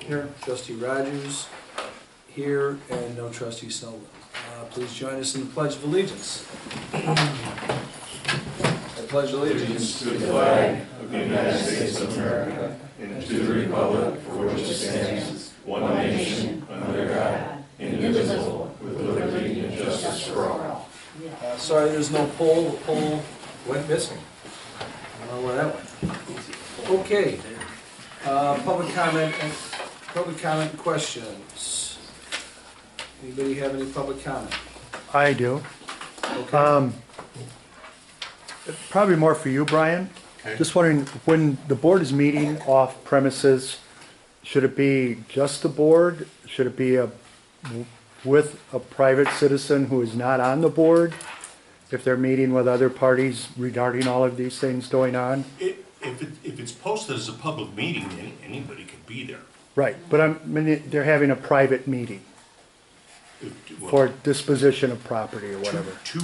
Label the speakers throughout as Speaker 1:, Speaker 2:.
Speaker 1: Here. Trustee Rogers, here, and no trustee Sullivan. Uh, Please join us in the Pledge of Allegiance. I pledge allegiance to the flag. Uh, Sorry, there's no poll, the poll went missing. I don't know where that went. Okay, uh, public comment, and public comment questions. Anybody have any public comment?
Speaker 2: I do.
Speaker 1: Okay.
Speaker 2: Um, Probably more for you, Brian. Just wondering, when the board is meeting off premises, should it be just the board? Should it be a, with a private citizen who is not on the board? If they're meeting with other parties regarding all of these things going on?
Speaker 3: If, if it, if it's posted as a public meeting, then anybody could be there.
Speaker 2: Right, but I'm- I mean, they're having a private meeting
Speaker 3: If- well,
Speaker 2: for disposition of property or whatever.
Speaker 3: Two,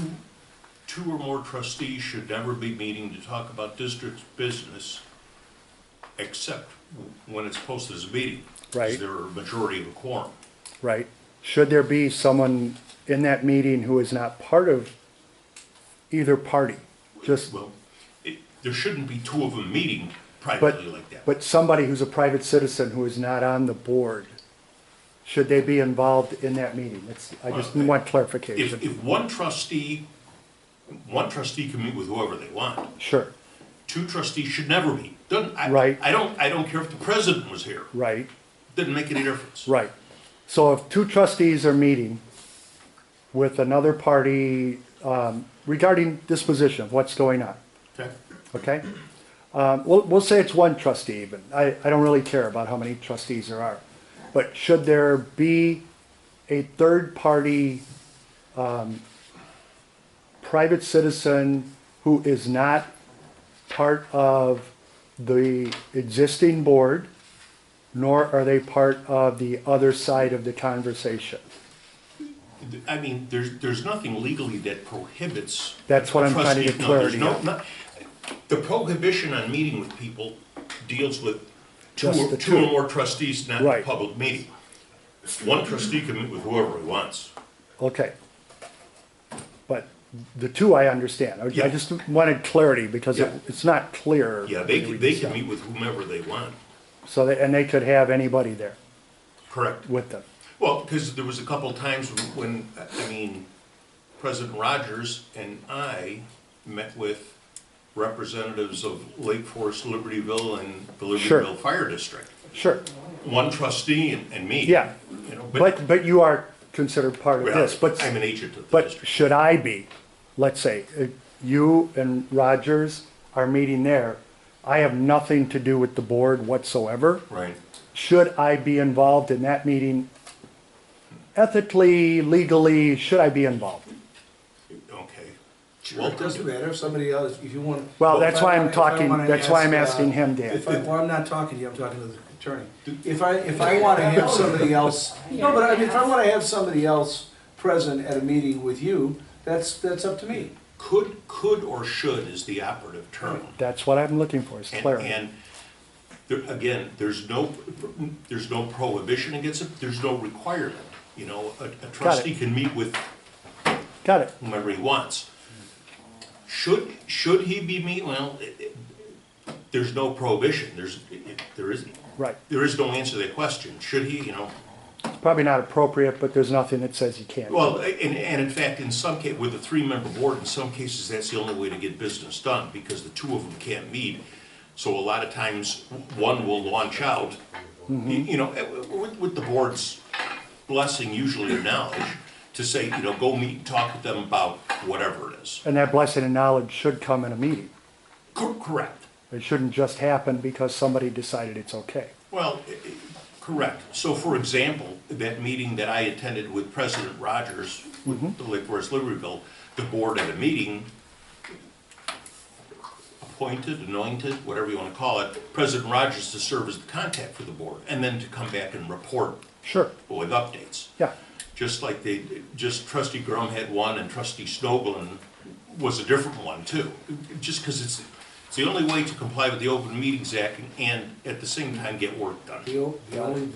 Speaker 3: two or more trustees should never be meeting to talk about district business, except when it's posted as a meeting. 'cause
Speaker 2: Right.
Speaker 3: They're a majority of a quorum.
Speaker 2: Right. Should there be someone in that meeting who is not part of either party? Just,
Speaker 3: Well, it, there shouldn't be two of them meeting
Speaker 2: but,
Speaker 3: privately like that.
Speaker 2: but somebody who's a private citizen who is not on the board, should they be involved in that meeting? It's, I just
Speaker 3: Well,
Speaker 2: want
Speaker 3: If,
Speaker 2: clarification.
Speaker 3: if one trustee, one trustee can meet with whoever they want.
Speaker 2: Sure,
Speaker 3: Two trustees should never meet. Doesn't, I,
Speaker 2: Right.
Speaker 3: I don't, I don't care if the president was here.
Speaker 2: right,
Speaker 3: Doesn't make any difference.
Speaker 2: right. So if two trustees are meeting with another party, um, regarding disposition of what's going on,
Speaker 3: Okay.
Speaker 2: Okay? Um, We'll, we'll say it's one trustee even. I, I don't really care about how many trustees there are. But should there be a third-party um, private citizen who is not part of the existing board, nor are they part of the other side of the conversation?
Speaker 3: I mean, there's, there's nothing legally that prohibits.
Speaker 2: That's what I'm trying to get
Speaker 3: No, there's
Speaker 2: clarity
Speaker 3: no-
Speaker 2: on.
Speaker 3: not- The prohibition on meeting with people deals with two,
Speaker 2: Just
Speaker 3: or-
Speaker 2: the
Speaker 3: two or
Speaker 2: two.
Speaker 3: more trustees, not a
Speaker 2: Right.
Speaker 3: public meeting. One trustee can meet with whoever he wants.
Speaker 2: Okay. But the two I understand. I-
Speaker 3: Yeah.
Speaker 2: I just wanted clarity because it-
Speaker 3: Yeah.
Speaker 2: it's not clear.
Speaker 3: Yeah,
Speaker 2: when
Speaker 3: they
Speaker 2: you
Speaker 3: can,
Speaker 2: read
Speaker 3: they
Speaker 2: this
Speaker 3: can
Speaker 2: out.
Speaker 3: meet with whomever they want,
Speaker 2: So, they- and they could have anybody there
Speaker 3: correct?
Speaker 2: with them.
Speaker 3: Well, because there was a couple times when, I mean, President Rogers and I met with representatives of Lake Forest, Libertyville, and the
Speaker 2: Sure.
Speaker 3: Libertyville Fire District.
Speaker 2: Sure.
Speaker 3: one trustee and, and me.
Speaker 2: Yeah.
Speaker 3: You know, but,
Speaker 2: But, but you are considered part of
Speaker 3: well,
Speaker 2: this, but,
Speaker 3: I'm an agent of the
Speaker 2: but
Speaker 3: district.
Speaker 2: should I be? Let's say, uh, you and Rogers are meeting there. I have nothing to do with the board whatsoever.
Speaker 3: Right.
Speaker 2: Should I be involved in that meeting? Ethically, legally, should I be involved?
Speaker 3: Okay.
Speaker 1: Well, it doesn't matter, if somebody else, if you want.
Speaker 2: Well, that's why I'm
Speaker 1: If I wanna- if I
Speaker 2: talking-
Speaker 1: wanna
Speaker 2: that's why I'm
Speaker 1: ask, uh,
Speaker 2: asking him, Dan.
Speaker 1: If I, well, I'm not talking to you, I'm talking to the attorney. If I, if I wanna have somebody else, no, but I mean, if I wanna have somebody else present at a meeting with you, that's, that's up to me.
Speaker 3: Could, could or should is the operative term.
Speaker 2: That's what I'm looking for, is
Speaker 3: And,
Speaker 2: clarity.
Speaker 3: and there, again, there's no, there's no prohibition against it, there's no requirement. You know, a, a trustee can meet with
Speaker 2: Got it.
Speaker 3: whomever he wants. Should, should he be meet, well, it- it- there's no prohibition, there's, it- it- there isn't.
Speaker 2: Right.
Speaker 3: There is no answer to that question. Should he, you know,
Speaker 2: Probably not appropriate, but there's nothing that says you can't.
Speaker 3: Well, and, and in fact, in some ca, with a three-member board, in some cases, that's the only way to get business done, because the two of them can't meet. So a lot of times, one will launch out, you you know, eh, with, with the board's blessing, usually or knowledge, to say, you know, go meet and talk with them about whatever it is.
Speaker 2: And that blessing and knowledge should come in a meeting.
Speaker 3: Cor- Correct.
Speaker 2: It shouldn't just happen because somebody decided it's okay.
Speaker 3: Well, eh, eh, correct. So for example, that meeting that I attended with President Rogers, with the Lake Forest Libertyville, the board at a meeting, appointed, anointed, whatever you want to call it, President Rogers to serve as the contact for the board, and then to come back and report
Speaker 2: Sure,
Speaker 3: with updates.
Speaker 2: yeah,
Speaker 3: Just like they, just trustee Grum had one, and trustee Snoblen was a different one too. Just because it's, it's the only way to comply with the Open Meetings Act and at the same time get work done.
Speaker 1: The o- the only